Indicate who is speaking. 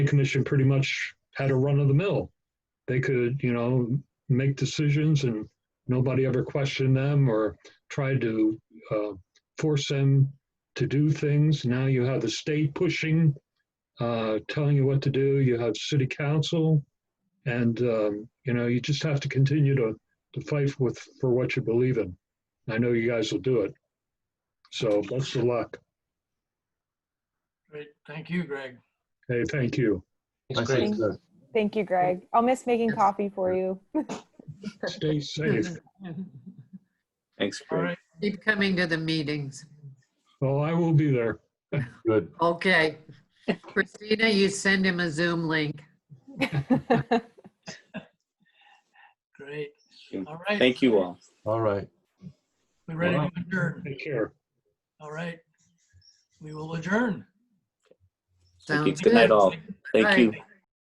Speaker 1: commission pretty much had a run of the mill. They could, you know, make decisions and nobody ever questioned them or tried to uh, force them to do things. Now you have the state pushing, uh, telling you what to do. You have city council, and um, you know you just have to continue to to fight with for what you believe in. I know you guys will do it. So best of luck.
Speaker 2: Great, thank you, Greg.
Speaker 1: Hey, thank you.
Speaker 3: I think so.
Speaker 4: Thank you, Greg. I'll miss making coffee for you.
Speaker 1: Stay safe.
Speaker 3: Thanks,
Speaker 2: All
Speaker 3: Greg.
Speaker 2: right,
Speaker 5: Keep coming to the meetings.
Speaker 1: Well, I will be there.
Speaker 3: Good.
Speaker 5: Okay. Christina, you send him a Zoom link.
Speaker 2: great.
Speaker 3: Thank
Speaker 2: All right.
Speaker 3: Thank you all.
Speaker 6: All right.
Speaker 2: We're ready to adjourn.
Speaker 1: Take care.
Speaker 2: All right. We will adjourn.
Speaker 3: Thank you.
Speaker 5: Sounds
Speaker 3: Good night
Speaker 5: good.
Speaker 3: all. Thank
Speaker 5: Bye.
Speaker 3: you.